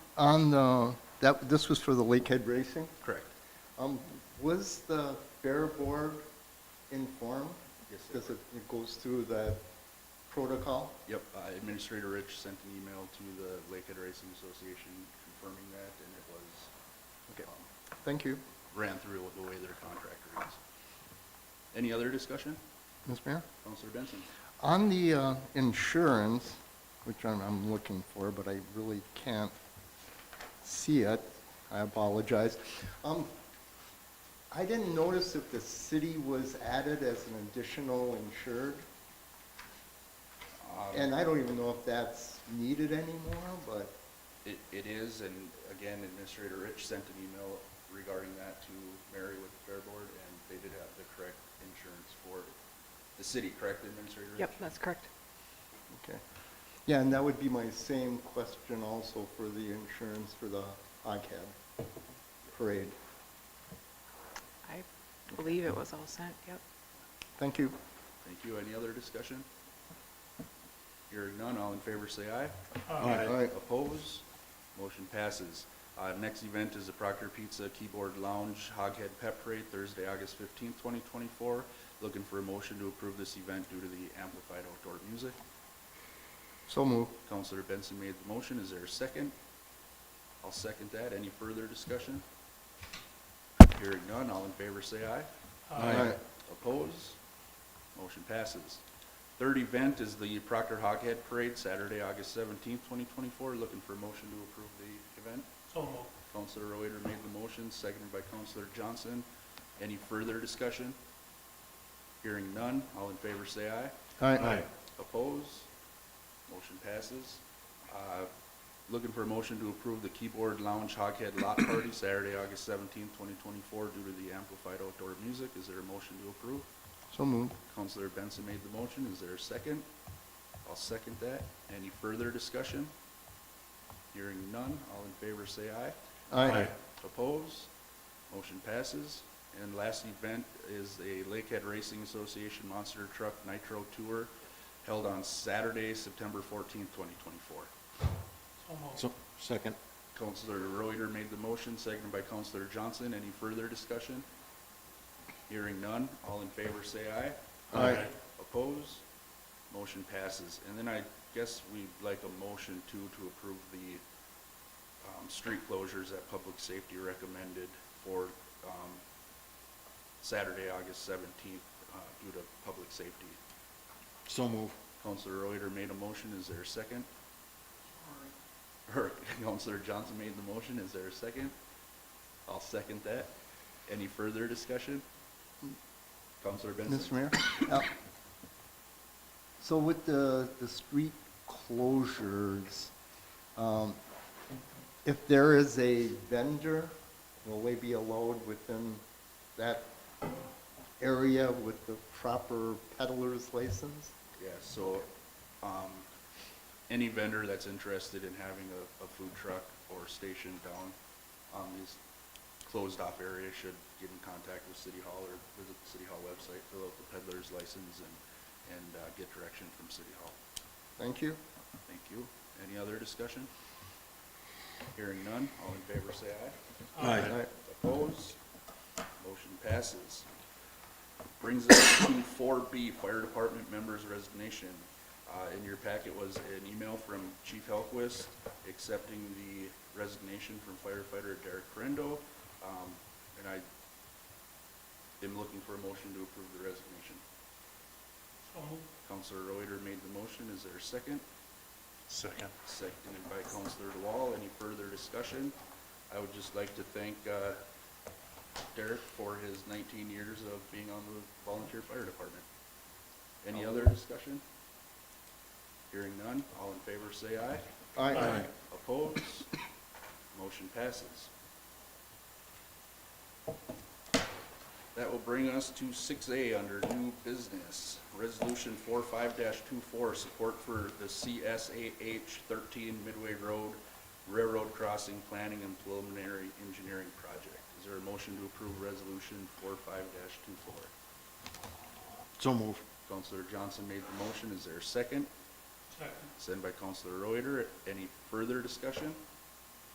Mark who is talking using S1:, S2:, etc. S1: On the, that, this was for the Lakehead Racing?
S2: Correct.
S1: Um, was the Bear Board informed?
S2: Yes, it
S1: Because it it goes through that protocol?
S2: Yep, uh, Administrator Rich sent an email to the Lakehead Racing Association confirming that, and it was,
S1: Okay.
S2: um,
S1: Thank you.
S2: ran through the way their contractor is. Any other discussion?
S1: Ms. Mayor?
S2: Counselor Benson?
S1: On the uh, insurance, which I'm, I'm looking for, but I really can't see it, I apologize. Um, I didn't notice if the city was added as an additional insured,
S2: Um,
S1: and I don't even know if that's needed anymore, but,
S2: It, it is, and again, Administrator Rich sent an email regarding that to Mary with the Fair Board, and they did have the correct insurance for the city, correct, Administrator Rich?
S3: Yep, that's correct.
S1: okay. Yeah, and that would be my same question also for the insurance for the ICAD parade.
S3: I believe it was all sent, yep.
S1: Thank you.
S2: Thank you. Any other discussion? Hearing none, all in favor say aye.
S1: Aye. Aye.
S2: Oppose? Motion passes. Uh, next event is the Proctor Pizza Keyboard Lounge Hoghead Pep Parade, Thursday, August fifteenth, twenty twenty-four. Looking for a motion to approve this event due to the amplified outdoor music.
S1: So move.
S2: Counselor Benson made the motion. Is there a second? I'll second that. Any further discussion? Hearing none, all in favor say aye.
S1: Aye. Aye.
S2: Oppose? Motion passes. Third event is the Proctor Hoghead Parade, Saturday, August seventeenth, twenty twenty-four. Looking for a motion to approve the event.
S4: So moved.
S2: Counselor Reuter made the motion, seconded by Counselor Johnson. Any further discussion? Hearing none, all in favor say aye.
S1: Aye.
S2: Opposed? Motion passes. Uh, Looking for a motion to approve the Keyboard Lounge Hoghead Lot Party Saturday, August seventeenth, twenty twenty-four, due to the amplified outdoor music. Is there a motion to approve?
S1: So move.
S2: Counselor Benson made the motion. Is there a second? I'll second that. Any further discussion? Hearing none. All in favor say aye.
S1: Aye.
S2: Opposed? Motion passes. And last event is a Lakehead Racing Association Monster Truck Nitro Tour held on Saturday, September fourteenth, twenty twenty-four.
S4: So moved.
S5: So, second.
S2: Counselor Reuter made the motion, seconded by Counselor Johnson. Any further discussion? Hearing none. All in favor say aye.
S1: Aye. Aye.
S2: Opposed? Motion passes. And then I guess we'd like a motion too to approve the um, street closures that public safety recommended for um, Saturday, August seventeenth, uh, due to public safety.
S5: So move.
S2: Counselor Reuter made a motion. Is there a second? Or Counselor Johnson made the motion. Is there a second? I'll second that. Any further discussion? Counselor Benson?
S1: Mr. Mayor? Uh, So with the, the street closures, um, if there is a vendor, will they be allowed within that area with the proper peddler's license?
S2: Yeah, so, um, any vendor that's interested in having a, a food truck or station down on these closed-off areas should get in contact with City Hall or visit the City Hall website, fill out the peddler's license and, and, uh, get direction from City Hall.
S1: Thank you.
S2: Thank you. Any other discussion? Hearing none, all in favor say aye.
S5: Aye.
S1: Aye.
S2: Opposed? Motion passes. Brings us to four B, Fire Department Members Resignation. Uh, in your packet was an email from Chief Helquist accepting the resignation from firefighter Derek Correndo. Um, and I am looking for a motion to approve the resignation.
S4: So moved.
S2: Counselor Reuter made the motion. Is there a second?
S5: Second.
S2: Seconded by Counselor DeWall. Any further discussion? I would just like to thank uh, Derek for his 19 years of being on the volunteer fire department. Any other discussion? Hearing none, all in favor say aye.
S1: Aye.
S2: Opposed? Motion passes. That will bring us to six A under new business. Resolution four five 24 support for the CSAH thirteen Midway Road Railroad Crossing Planning and Preliminary Engineering Project. Is there a motion to approve resolution four five 24
S5: So move.
S2: Counselor Johnson made the motion. Is there a second?
S4: Second.
S2: Sent by Counselor Reuter. Any further discussion?